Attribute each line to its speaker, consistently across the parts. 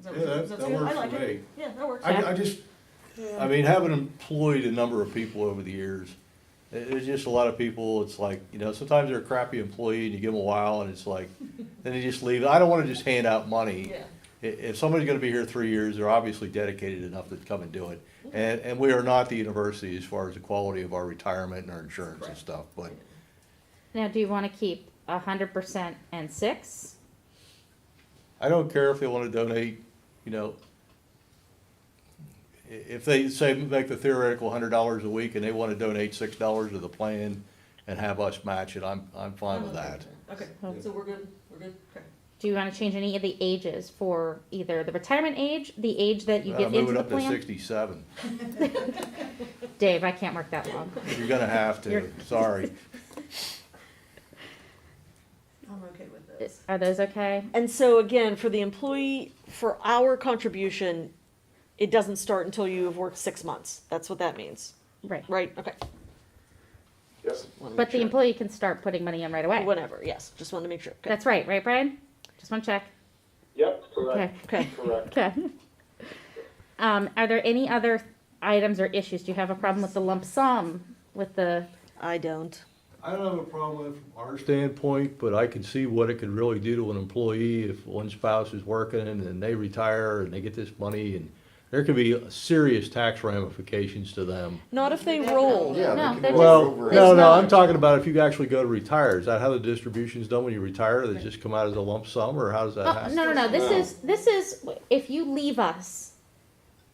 Speaker 1: that
Speaker 2: Yeah, that-
Speaker 1: was,
Speaker 2: that
Speaker 1: that's good, I
Speaker 2: works
Speaker 1: like
Speaker 2: for
Speaker 1: it,
Speaker 2: me.
Speaker 1: yeah, that works.
Speaker 2: I, I just, I mean, having employed a number of people over the years, i- there's just a lot of people, it's like, you know, sometimes they're a crappy employee and you give them a while and it's like, then they just leave. I don't wanna just hand out money.
Speaker 1: Yeah.
Speaker 2: I- if somebody's gonna be here three years, they're obviously dedicated enough to come and do it.
Speaker 1: Mm-hmm.
Speaker 2: And, and we are not the university as far as the quality of our retirement and our insurance and
Speaker 1: Correct.
Speaker 2: stuff, but
Speaker 3: Now, do you want to keep a hundred percent and six?
Speaker 2: I don't care if they wanna donate, you know, i- if they say, make the theoretical hundred dollars a week and they wanna donate six dollars to the plan and have us match it, I'm, I'm fine with that.
Speaker 1: Okay,
Speaker 3: Yeah.
Speaker 1: so we're good, we're good, okay.
Speaker 3: Do you want to change any of the ages for either the retirement age, the age that you
Speaker 2: Uh,
Speaker 3: get
Speaker 2: move
Speaker 3: into
Speaker 2: it
Speaker 3: the
Speaker 2: up to
Speaker 3: plan?
Speaker 2: sixty-seven.
Speaker 3: Dave, I can't work that long.
Speaker 2: You're gonna have to,
Speaker 3: You're-
Speaker 2: sorry.
Speaker 1: I'm okay with
Speaker 3: Is-
Speaker 1: this.
Speaker 3: Are those okay?
Speaker 4: And so again, for the employee, for our contribution, it doesn't start until you have worked six months. That's what that means,
Speaker 3: Right.
Speaker 4: right? Okay.
Speaker 5: Yes.
Speaker 4: Wanna
Speaker 3: But
Speaker 4: make
Speaker 3: the
Speaker 4: sure.
Speaker 3: employee can start putting money in right away.
Speaker 4: Whatever, yes, just wanted to make sure. Okay.
Speaker 3: That's right, right, Brian? Just want to check.
Speaker 5: Yep,
Speaker 3: Okay.
Speaker 5: correct,
Speaker 4: Okay,
Speaker 5: correct.
Speaker 3: Okay. Um, are there any other items or issues? Do you have a problem with the lump sum with the,
Speaker 4: I don't.
Speaker 2: I don't have a problem with it from our standpoint, but I can see what it could really do to an employee if one spouse is working and they retire and they get this money and there could be serious tax ramifications to them.
Speaker 4: Not if they
Speaker 1: Yeah.
Speaker 4: roll.
Speaker 1: Yeah.
Speaker 3: No, they're
Speaker 5: they can
Speaker 3: just-
Speaker 5: roll
Speaker 2: Well,
Speaker 5: over
Speaker 2: no,
Speaker 5: it.
Speaker 2: no, I'm talking about if you actually go to retire, is that how the distribution's done when you retire? They just come out as a lump sum or how does that
Speaker 3: oh, no,
Speaker 2: happen?
Speaker 3: no, no, this
Speaker 5: No.
Speaker 3: is, this is, if you leave us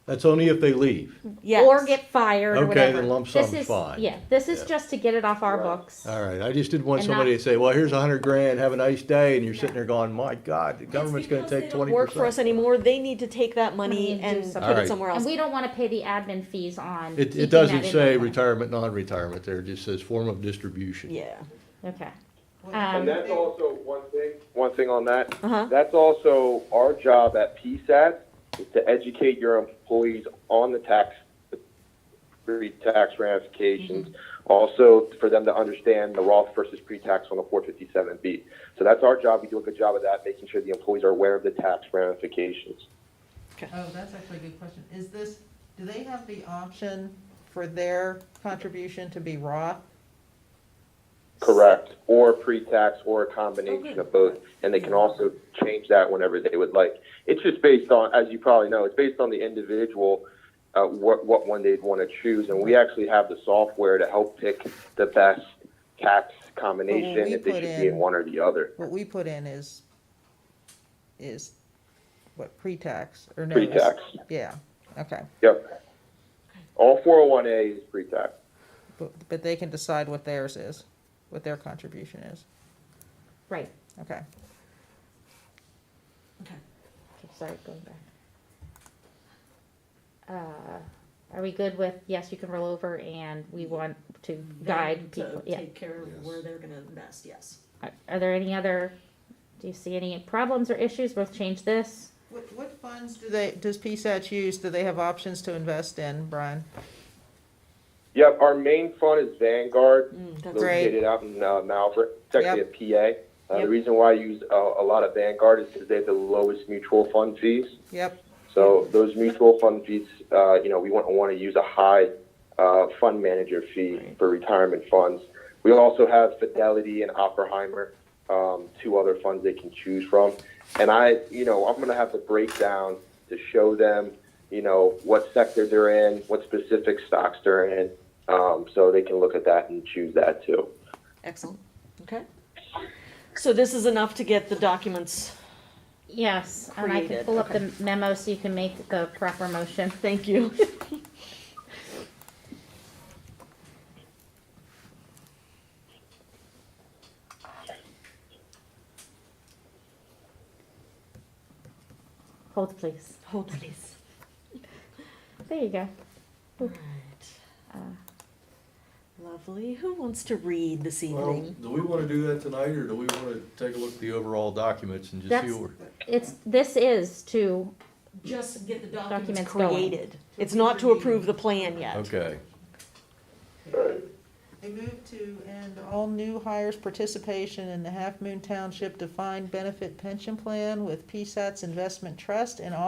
Speaker 2: That's only if they leave.
Speaker 4: Yes.
Speaker 3: or get fired or
Speaker 2: Okay,
Speaker 3: whatever.
Speaker 2: then lump
Speaker 3: This
Speaker 2: sum's
Speaker 3: is-
Speaker 2: fine.
Speaker 3: Yeah, this is just to get it off our
Speaker 5: Right.
Speaker 3: books.
Speaker 2: All right, I just didn't want
Speaker 3: And not-
Speaker 2: somebody to say, well, here's a hundred grand, have a nice day, and you're sitting there going, my God, the government's gonna
Speaker 1: because they
Speaker 2: take
Speaker 1: don't
Speaker 2: twenty
Speaker 4: Work for us
Speaker 2: percent.
Speaker 4: anymore, they need to take that
Speaker 3: Money
Speaker 4: money
Speaker 3: and do
Speaker 4: and
Speaker 3: something.
Speaker 4: put it
Speaker 2: Alright.
Speaker 4: somewhere else.
Speaker 3: And we don't want to pay the admin fees on.
Speaker 2: It,
Speaker 3: keeping
Speaker 2: it
Speaker 3: that
Speaker 2: doesn't
Speaker 3: in
Speaker 2: say
Speaker 3: the plan.
Speaker 2: retirement, non-retirement there, it just says form of distribution.
Speaker 4: Yeah,
Speaker 3: Okay.
Speaker 5: And
Speaker 3: Um,
Speaker 5: that's also one thing, one thing on that.
Speaker 4: Uh-huh.
Speaker 5: That's also our job at PSAT is to educate your employees on the tax, pre-tax ramifications. Also, for them to understand the Roth versus pre-tax on the 457B. So that's our job. We do a good job of that, making sure the employees are aware of the tax ramifications.
Speaker 6: Oh, that's actually a good question. Is this, do they have the option for their contribution to be Roth?
Speaker 5: Correct, or pre-tax, or a combination
Speaker 1: Okay.
Speaker 5: of both, and they can also change that whenever they would like. It's just based on, as you probably know, it's based on the individual, uh, what, what one they'd want to choose, and we actually have the software to help pick the best tax combination,
Speaker 6: we
Speaker 5: if they
Speaker 6: put
Speaker 5: should be in
Speaker 6: in-
Speaker 5: one or the other.
Speaker 6: What we put in is, is what, pre-tax or no? it's-
Speaker 5: Pre-tax,
Speaker 6: Yeah, okay.
Speaker 5: yep. All 401A is pre-tax,
Speaker 6: But, but they can decide what theirs is, what their contribution is.
Speaker 3: right,
Speaker 6: Okay.
Speaker 3: Okay, sorry, going back. Uh, are we good with, yes, you can roll over and we want to guide
Speaker 1: Them
Speaker 3: people,
Speaker 1: to
Speaker 3: yeah.
Speaker 1: Take care of where they're gonna invest, yes.
Speaker 3: Are are there any other, do you see any problems or issues? We'll change this.
Speaker 6: What, what funds do they, does PSAT use? Do they have options to invest in, Brian?
Speaker 5: Yep, our main fund is Vanguard,
Speaker 4: that's
Speaker 6: Great.
Speaker 5: located out in uh, Malvern, it's actually a PA. Uh, The
Speaker 6: Yep.
Speaker 5: reason why I use uh, a lot of Vanguard is because they have the lowest mutual fund fees.
Speaker 6: Yep,
Speaker 5: So those mutual fund fees, uh, you know, we want, want to use a high uh, fund manager fee for retirement funds. We also have Fidelity and Oppenheimer, um, two other funds they can choose from. And I, you know, I'm going to have the breakdown to show them, you know, what sector they're in, what specific stocks they're in, um, so they can look at that and choose that too.
Speaker 4: excellent, okay. So this is enough to get the documents,
Speaker 3: Yes, and I can
Speaker 4: Created,
Speaker 3: pull up the memo so you can make the proper motion.
Speaker 4: thank you.
Speaker 3: Hold, please.
Speaker 4: Hold please.
Speaker 3: There you go. Uh,
Speaker 4: Alright. Lovely, who wants to read this
Speaker 2: Well,
Speaker 4: evening?
Speaker 2: do we wanna do that tonight, or do we wanna take a look at the overall documents and just see
Speaker 3: That's-
Speaker 2: what we're?
Speaker 3: It's, this is to,
Speaker 1: Just get the
Speaker 3: Documents
Speaker 1: documents.
Speaker 3: going.
Speaker 4: Created, it's not to approve the plan yet.
Speaker 2: Okay,
Speaker 6: I move to end all new hires' participation in the Half Moon Township Defined Benefit Pension Plan with PSAT's Investment Trust and all